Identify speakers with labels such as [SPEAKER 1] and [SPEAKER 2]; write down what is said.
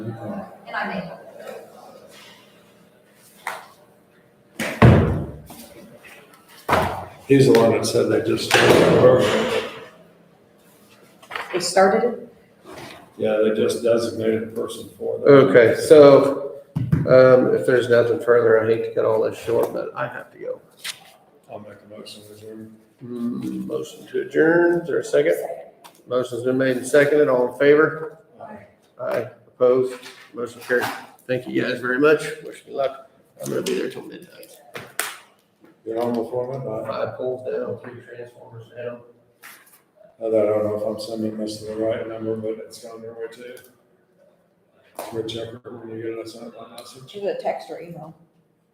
[SPEAKER 1] And I made.
[SPEAKER 2] He's the one that said they just started the program.
[SPEAKER 3] They started it?
[SPEAKER 2] Yeah, they just designated a person for that.
[SPEAKER 4] Okay, so, um, if there's nothing further, I hate to cut all this short, but I have to go.
[SPEAKER 2] I'll make a motion to adjourn.
[SPEAKER 4] Mm, Motion to adjourn, is there a second? Motion's been made and seconded, all in favor? Aye, opposed, motion carried. Thank you guys very much, wish me luck. I'm gonna be there till midnight.
[SPEAKER 2] You're on before midnight.
[SPEAKER 4] Five poles down, three transformers down.
[SPEAKER 2] I don't know if I'm sending this to the right number, but it's on their way too. Whichever, when you get us that message.
[SPEAKER 3] She was a text or email.